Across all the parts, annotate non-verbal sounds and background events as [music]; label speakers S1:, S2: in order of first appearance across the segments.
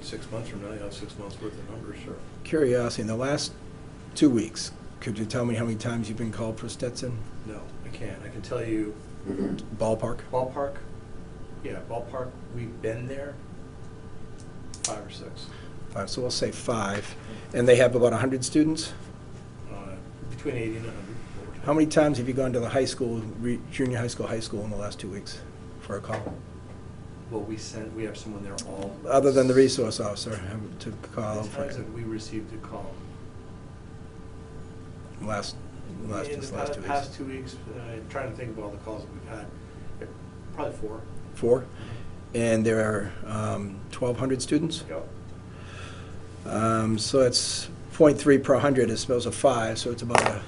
S1: six months from now, you have six months worth of numbers, sure.
S2: Curiosity, in the last two weeks, could you tell me how many times you've been called for Stetson?
S1: No, I can't. I can tell you
S2: Ballpark?
S1: ballpark, yeah, ballpark, we've been there five or six.
S2: Five, so we'll say five. And they have about 100 students?
S1: Uh, Between 80 and 100. over
S2: How
S1: time.
S2: many times have you gone to the high school, re- junior high school, high school in the last two weeks for a call?
S1: Well, we sent, we have someone there all.
S2: Other than the resource officer um, to call
S1: The
S2: for
S1: times that we received a call.
S2: last, last,
S1: In
S2: just
S1: the
S2: last
S1: pa-
S2: two
S1: Past
S2: weeks?
S1: two weeks, uh, trying to think of all the calls that we've had, eh, probably four.
S2: Four? And there are um, 1,200 students?
S1: Yep.
S2: Um, So it's .3 per 100, it's supposed to five, so it's about a,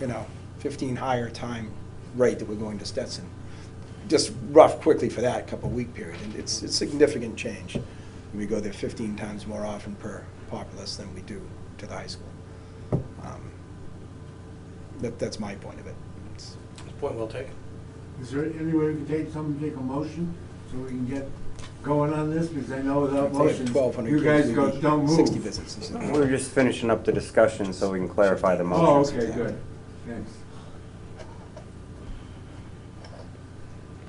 S2: you know, 15 higher time rate that we're going to Stetson. Just rough quickly for that couple-week period, and it's, it's significant change. We go there 15 times more often per populace than we do to the high school. Um, That, that's my point of it. It's-
S1: Point well taken.
S3: Is there any way we can take, someone take a motion so we can get going on this? Because I know
S2: if
S3: without
S2: they have
S3: motions,
S2: 1,200
S3: you
S2: kids,
S3: guys
S2: we'd
S3: go,
S2: be
S3: don't move.
S2: 60 visits and stuff.
S4: We're just finishing up the discussion so we can clarify the motion.
S3: Oh, okay, good, thanks.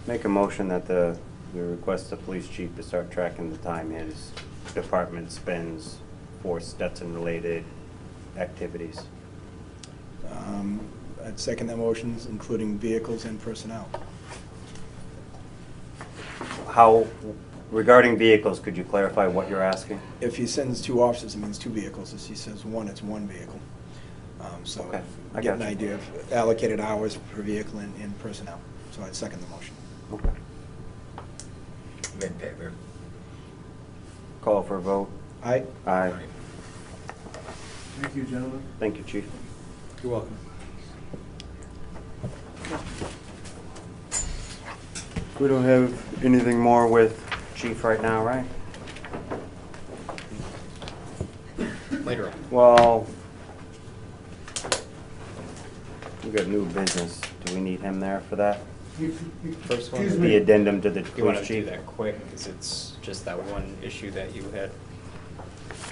S4: Make a motion that the, we request the police chief to start tracking the time his department spends for Stetson-related activities.
S2: Um, I'd second the motions, including vehicles and personnel.
S4: How, regarding vehicles, could you clarify what you're asking?
S2: If he sends two officers, it means two vehicles. If he sends one, it's one vehicle. Um, So
S4: Okay, I
S2: get an
S4: got you.
S2: idea of allocated hours per vehicle and, and personnel. So I'd second the motion.
S4: Okay.
S5: I'm in favor.
S4: Call for a vote.
S2: Aye?
S4: Aye.
S3: Thank you, gentlemen.
S4: Thank you, chief.
S1: You're welcome.
S4: We don't have anything more with chief right now, right?
S5: Later on.
S4: Well, we got new business. Do we need him there for that?
S3: You- you-
S5: First one
S3: excuse
S5: would
S3: me.
S4: The addendum to the
S5: You want
S4: police
S5: to do
S4: chief?
S5: that quick, because it's just that one issue that you had.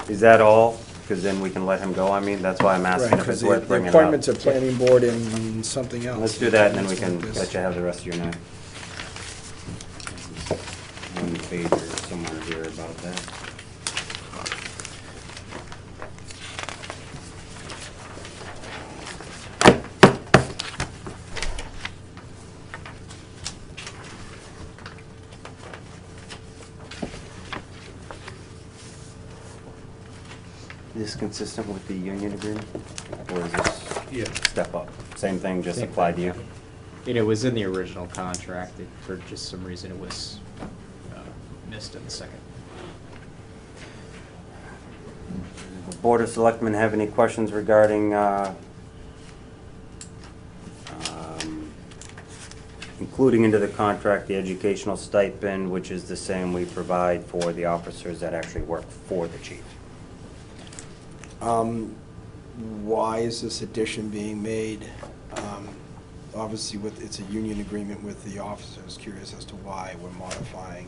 S4: Is that all? Because then we can let him go. I mean, that's why I'm asking if it's worth bringing
S2: The
S4: up.
S2: appointments of planning board and something else.
S4: Let's do that, and then we can let you have the rest of your night. One pager somewhere here about that. Is this consistent with the union agreement? Or is this?
S1: Yeah.
S4: Step up. Same thing, just
S5: Same
S4: applied to
S5: thing,
S4: you.
S5: You know, It was in the original contract, it- for just some reason it was uh, missed in the second.
S4: Board of Selectmen have any questions regarding uh, um, including into the contract the educational stipend, which is the same we provide for the officers that actually work for the chief?
S2: Um, Why is this addition being made? Um, Obviously with, it's a union agreement with the officers. Curious as to why we're modifying.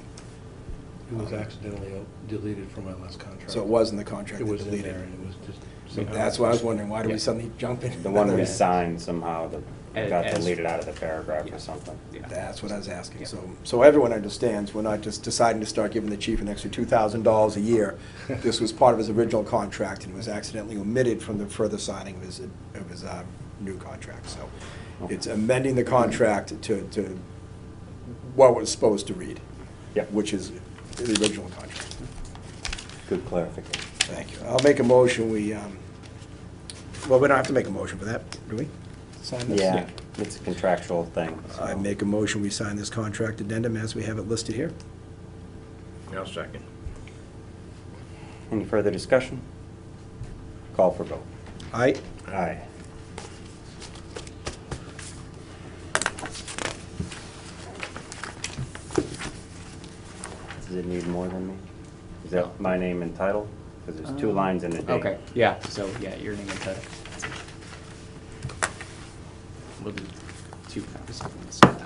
S1: It was accidentally deleted from my last contract.
S2: So it was in the contract
S1: It
S2: that
S1: was in
S2: deleted.
S1: there and it was just somehow.
S2: That's why I was wondering, why do we
S5: Yeah.
S2: suddenly jump in? [laughs]
S4: The one we
S5: Yeah.
S4: signed somehow that
S5: As-
S4: got
S5: as-
S4: deleted out of the paragraph
S5: Yeah.
S4: or something.
S5: Yeah.
S2: That's what I was asking.
S5: Yeah.
S2: So, so everyone understands, we're not just deciding to start giving the chief an extra two thousand dollars a year. This was part of his original contract and was accidentally omitted from the further signing of his, of his, uh, new contract. So it's amending the contract to, to what was supposed to read.
S4: Yep.
S2: Which is the original contract.
S4: Good clarification.
S2: Thank you. I'll make a motion, we, um, well, we don't have to make a motion for that, do we? Sign this?
S4: Yeah, it's a contractual thing. so-
S2: I make a motion, we sign this contract addendum as we have it listed here.
S5: I'll second.
S4: Any further discussion? Call for vote.
S2: Aye?
S4: Aye. Does it need more than me? Is that my name and title? Because there's two lines in the date.
S5: Okay, yeah, so, yeah, your name and title. We'll do two copies of this.